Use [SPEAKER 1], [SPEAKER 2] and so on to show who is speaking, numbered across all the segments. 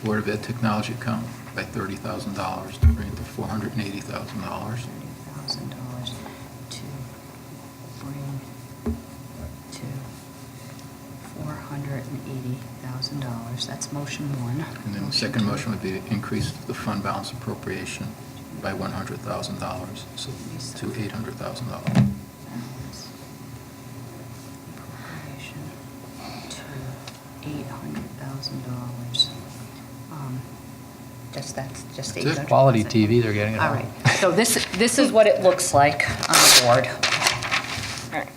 [SPEAKER 1] Florida Vet Technology account by thirty thousand dollars to bring it to four hundred and eighty thousand dollars.
[SPEAKER 2] thousand dollars to bring to four hundred and eighty thousand dollars. That's motion one.
[SPEAKER 1] And then the second motion would be to increase the fund balance appropriation by one hundred thousand dollars, so to eight hundred thousand dollars.
[SPEAKER 2] Balance Appropriation to eight hundred thousand dollars. Um, Just, that's, just eight
[SPEAKER 1] That's it.
[SPEAKER 2] hundred.
[SPEAKER 3] Quality TV they're getting at
[SPEAKER 2] All
[SPEAKER 3] home.
[SPEAKER 2] right, so this, this is what it looks like on the board. All right.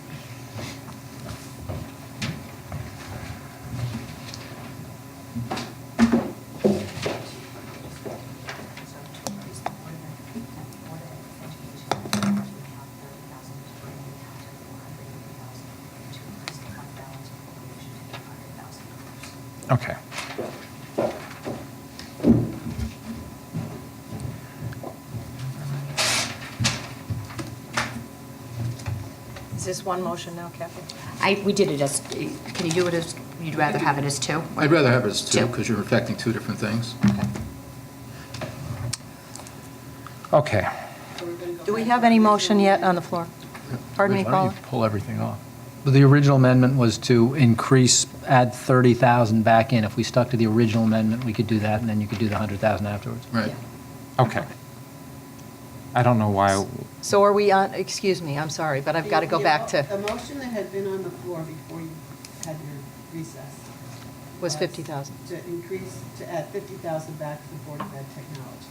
[SPEAKER 3] Okay.
[SPEAKER 4] Is this one motion now, Kathy?
[SPEAKER 2] I, we did it as, can you do it as, you'd rather have it as two?
[SPEAKER 1] I'd rather have it as two,
[SPEAKER 2] Two.
[SPEAKER 1] because you're affecting two different things.
[SPEAKER 3] Okay.
[SPEAKER 4] Do we have any motion yet on the floor? Pardon me,
[SPEAKER 3] Why don't you
[SPEAKER 4] Paula?
[SPEAKER 3] Pull everything off. But The original amendment was to increase, add 30,000 back in. If we stuck to the original amendment, we could do that, and then you could do the 100,000 afterwards.
[SPEAKER 1] Right.
[SPEAKER 5] Okay. I don't know why,
[SPEAKER 4] So are we on, excuse me, I'm sorry, but I've got to go
[SPEAKER 6] The-
[SPEAKER 4] back
[SPEAKER 6] The
[SPEAKER 4] to,
[SPEAKER 6] motion that had been on the floor before you had your recess.
[SPEAKER 4] Was 50,000.
[SPEAKER 6] To increase, to add 50,000 back to the Board of Ed Technology.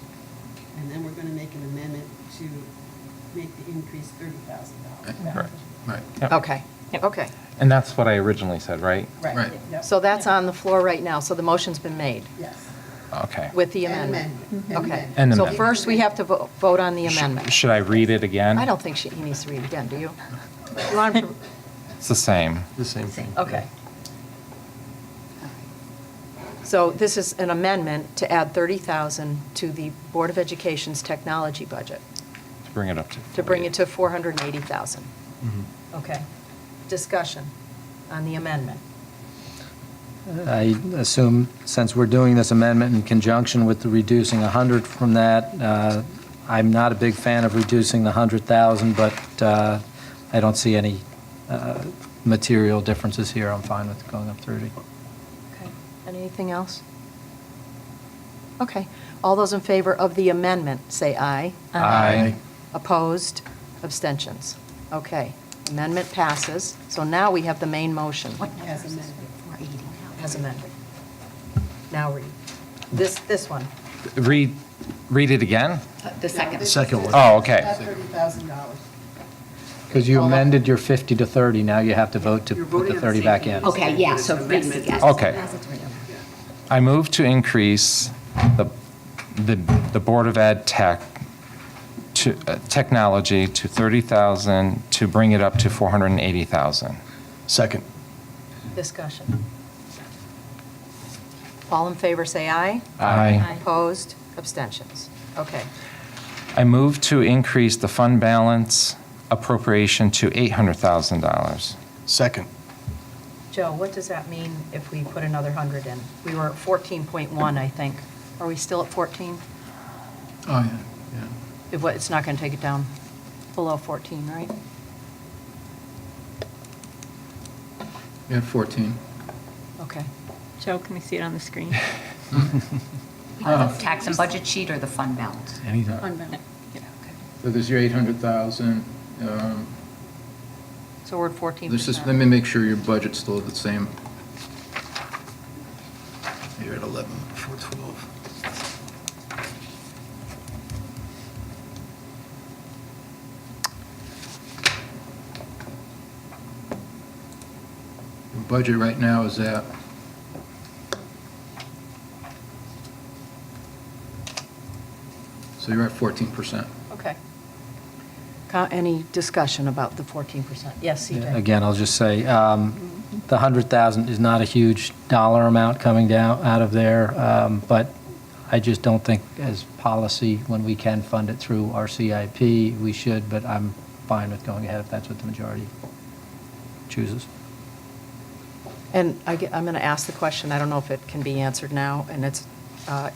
[SPEAKER 6] And then we're going to make an amendment to make the increase $30,000 back.
[SPEAKER 5] Right.
[SPEAKER 1] Right.
[SPEAKER 5] Yep.
[SPEAKER 4] okay, okay.
[SPEAKER 5] and that's what I originally said, right?
[SPEAKER 1] Right.
[SPEAKER 6] Yep.
[SPEAKER 4] So that's on the floor right now, so the motion's been made
[SPEAKER 6] Yes.
[SPEAKER 5] Okay.
[SPEAKER 4] with the
[SPEAKER 6] An
[SPEAKER 4] amendment. Mm-hmm.
[SPEAKER 6] amendment, an
[SPEAKER 4] Okay.
[SPEAKER 5] amendment. An
[SPEAKER 4] So
[SPEAKER 5] amendment.
[SPEAKER 4] first, we have to vo- vote on the
[SPEAKER 5] Sh-
[SPEAKER 4] amendment.
[SPEAKER 5] Should I read it again?
[SPEAKER 4] I don't think she, he needs to read again, do you? You want him
[SPEAKER 5] It's the same.
[SPEAKER 7] The same thing.
[SPEAKER 4] to- Okay. So this is an amendment to add 30,000 to the Board of Education's technology budget.
[SPEAKER 5] To bring it up to. Mm-hmm.
[SPEAKER 4] to bring it
[SPEAKER 5] 48.
[SPEAKER 4] to 480,000.
[SPEAKER 7] Mhm.
[SPEAKER 4] Okay. Discussion on the amendment.
[SPEAKER 3] I assume, since we're doing this amendment in conjunction with the reducing 100 from that, uh, I'm not a big fan of reducing the 100,000, but uh, I don't see any uh, material differences here. I'm fine with going up 30.
[SPEAKER 4] Okay. Anything else? Okay. All those in favor of the amendment, say aye.
[SPEAKER 5] Aye. Aye.
[SPEAKER 4] Opposed? Abstentions? Okay. Amendment passes. So now we have the main motion
[SPEAKER 6] As amended.
[SPEAKER 2] Four eighty.
[SPEAKER 4] as amended. Now read. This, this one.
[SPEAKER 5] Read, read it again?
[SPEAKER 4] Uh,
[SPEAKER 6] No,
[SPEAKER 2] The second.
[SPEAKER 6] this is
[SPEAKER 7] Second one.
[SPEAKER 6] to
[SPEAKER 5] Oh, okay.
[SPEAKER 6] Add $30,000.
[SPEAKER 3] Because you
[SPEAKER 4] Hold on.
[SPEAKER 3] amended your 50 to 30, now you have to vote to
[SPEAKER 6] You're
[SPEAKER 3] put
[SPEAKER 6] voting
[SPEAKER 3] the
[SPEAKER 6] on the
[SPEAKER 3] 30
[SPEAKER 6] same
[SPEAKER 3] back
[SPEAKER 6] thing.
[SPEAKER 3] in.
[SPEAKER 2] Okay, yeah, so
[SPEAKER 6] It's
[SPEAKER 2] yes,
[SPEAKER 6] amendment.
[SPEAKER 2] yes.
[SPEAKER 5] Okay.
[SPEAKER 2] As it's written.
[SPEAKER 5] I move to increase the, the, the Board of Ed tech, to, uh, technology to 30,000 to bring it up to 480,000.
[SPEAKER 7] Second.
[SPEAKER 4] Discussion. All in favor, say aye.
[SPEAKER 5] Aye.
[SPEAKER 4] Opposed? Abstentions? Okay.
[SPEAKER 5] I move to increase the fund balance appropriation to $800,000.
[SPEAKER 7] Second.
[SPEAKER 4] Joe, what does that mean if we put another 100 in? We were at 14.1, I think. Are we still at 14?
[SPEAKER 1] Oh, yeah, yeah.
[SPEAKER 4] It wa- It's not going to take it down below 14, right?
[SPEAKER 1] You had fourteen.
[SPEAKER 4] Okay.
[SPEAKER 8] Joe, can we see it on the screen?
[SPEAKER 1] Oh.
[SPEAKER 2] Tax and budget sheet or the fund balance?
[SPEAKER 1] Anytime.
[SPEAKER 8] Yeah, okay.
[SPEAKER 1] So there's your eight hundred thousand. um,
[SPEAKER 4] So we're at 14%.
[SPEAKER 1] This is, let me make sure your budget's still the same. You're at eleven, four twelve. Your budget right now is at So you're at fourteen percent.
[SPEAKER 4] Okay. Co- Any discussion about the 14%? Yes, CJ?
[SPEAKER 3] Again, I'll just say, um, the 100,000 is not a huge dollar amount coming down, out of there, um, but I just don't think as policy, when we can fund it through our CIP, we should, but I'm fine with going ahead if that's what the majority chooses.
[SPEAKER 4] And I ge- I'm going to ask the question, I don't know if it can be answered now, and it's uh,